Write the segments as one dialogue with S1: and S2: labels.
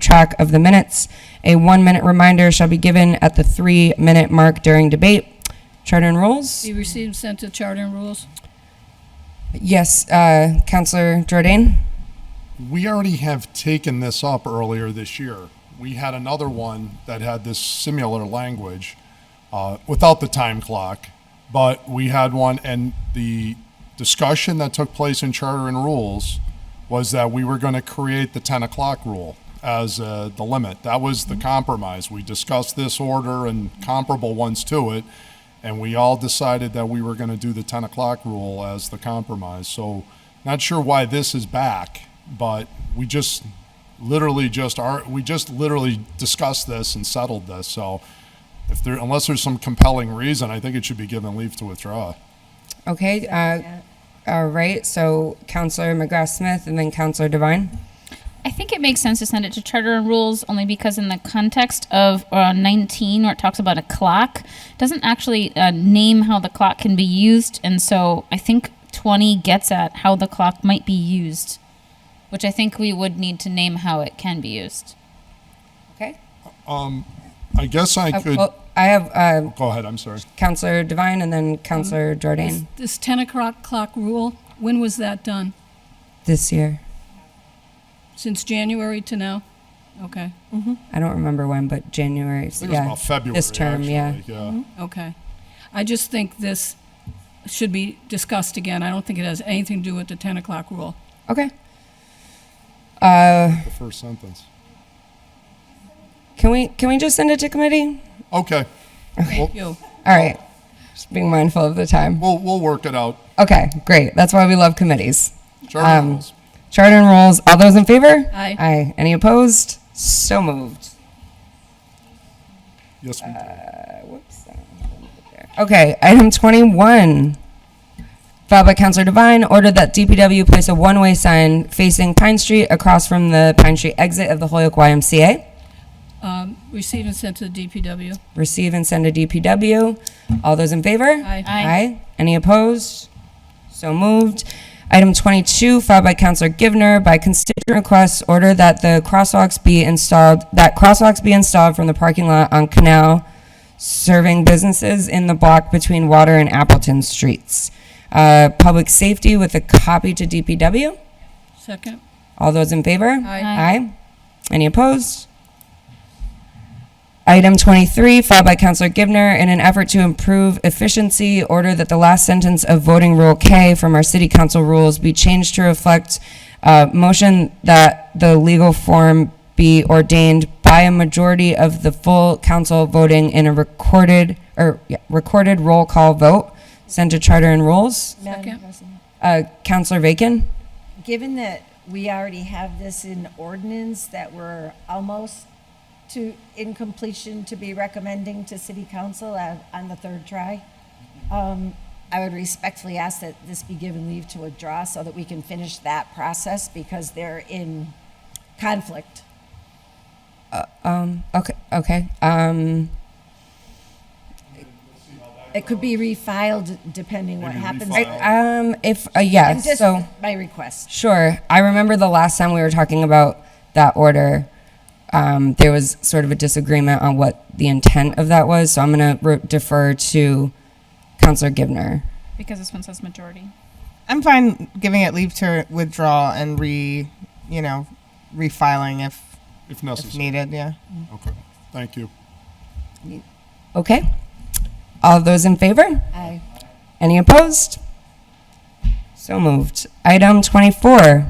S1: track of the minutes. A one-minute reminder shall be given at the three-minute mark during debate. Charter and rules?
S2: Be received, and sent to Charter and Rules.
S1: Yes, uh, Counselor Jordan?
S3: We already have taken this up earlier this year. We had another one that had this similar language uh, without the time clock, but we had one, and the discussion that took place in Charter and Rules was that we were going to create the 10 o'clock rule as uh, the limit. That was the compromise. We discussed this order and comparable ones to it, and we all decided that we were going to do the 10 o'clock rule as the compromise. So, not sure why this is back, but we just literally just are we just literally discussed this and settled this. So, if there unless there's some compelling reason, I think it should be given leave to withdraw.
S1: Okay, uh, all right, so Counselor McGrath-Smith and then Counselor Devine?
S4: I think it makes sense to send it to charter and rules only because in the context of uh, 19 where it talks about a clock it doesn't actually uh, name how the clock can be used and so I think 20 gets at how the clock might be used which I think we would need to name how it can be used.
S1: Okay?
S3: I guess I
S1: Uh,
S3: could
S1: well, I have uh,
S3: go ahead. I'm sorry.
S1: Counselor Devine and then Counselor Jordan
S2: This 10 o'clock clock rule, when was that done?
S1: this year.
S2: Since January to now? Okay,
S1: I don't remember when, but January.
S3: I think
S1: yeah,
S3: it was about February.
S1: This term,
S3: actually.
S1: yeah.
S2: okay. I just think this should be discussed again. I don't think it has anything to do with the 10 o'clock rule.
S1: Okay. Mm-hmm.
S3: The first sentence.
S1: Can we can we just send it to committee?
S3: Okay,
S2: You,
S1: All right. Just being mindful of the time.
S3: we'll we'll work it out.
S1: Okay, great. That's why we love committees.
S3: Charter
S1: Um,
S3: rules.
S1: Charter and rules. All those in favor?
S2: Aye.
S1: Aye. Any opposed? So moved.
S3: Yes, we do.
S1: uh, Whoops. Okay, item 21. Filed by Counselor Devine, ordered that DPW place a one-way sign facing Pine Street across from the Pine Street exit of the Holyoke YMCA.
S2: um, receive and send to the DPW.
S1: Receive and send to DPW. All those in favor?
S2: Aye.
S4: Aye.
S1: Any opposed? So moved. Item 22, filed by Counselor Givner, by constituent request, order that the crosswalks be installed, that crosswalks be installed from the parking lot on Canal serving businesses in the block between Water and Appleton Streets. Uh, Public safety with a copy to DPW.
S2: Second?
S1: All those in favor?
S2: Aye.
S1: Aye. Any opposed? Item 23, filed by Counselor Givner, in an effort to improve efficiency, order that the last sentence of voting rule K from our city council rules be changed to reflect uh, motion that the legal form be ordained by a majority of the full council voting in a recorded, or yeah, recorded roll call vote, sent to charter and rules.
S2: Second.
S5: Madam President,
S1: Uh, Counselor Bacon?
S5: Given that we already have this in ordinance that we're almost to, in completion to be recommending to city council on, on the third try, um, I would respectfully ask that this be given leave to withdraw so that we can finish that process because they're in conflict.
S1: Um, okay, okay. Um,
S5: It could be refiled depending what happens.
S3: refiled.
S1: I, um, if uh, yeah,
S5: I'm just-
S1: so
S5: My request.
S1: sure. I remember the last time we were talking about that order. Um, there was sort of a disagreement on what the intent of that was, so I'm going to re- defer to Counselor Givner.
S4: Because this one says majority.
S6: I'm fine giving it leave to withdraw and re, you know, refiling if
S3: if
S6: if
S3: necessary.
S6: needed. Yeah.
S3: Okay, thank you.
S1: Okay. All those in favor?
S5: Aye.
S1: Any opposed? So moved. Item 24,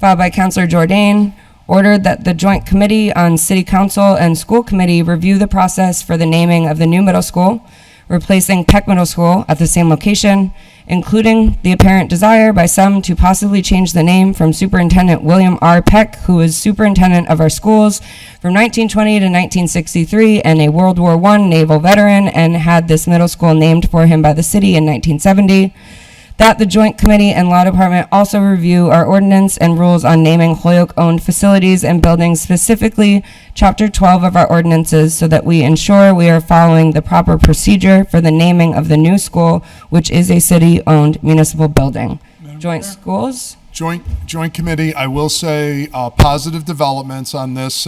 S1: filed by Counselor Jordan, ordered that the Joint Committee on City Council and School Committee review the process for the naming of the new middle school, replacing Peck Middle School at the same location, including the apparent desire by some to possibly change the name from Superintendent William R. Peck, who was superintendent of our schools from 1920 to 1963 and a World War I naval veteran, and had this middle school named for him by the city in 1970. That the Joint Committee and Law Department also review our ordinance and rules on naming Holyoke-owned facilities and buildings, specifically Chapter 12 of our ordinances, so that we ensure we are following the proper procedure for the naming of the new school, which is a city-owned municipal building. Joint schools?
S3: Joint, joint committee, I will say, uh, positive developments on this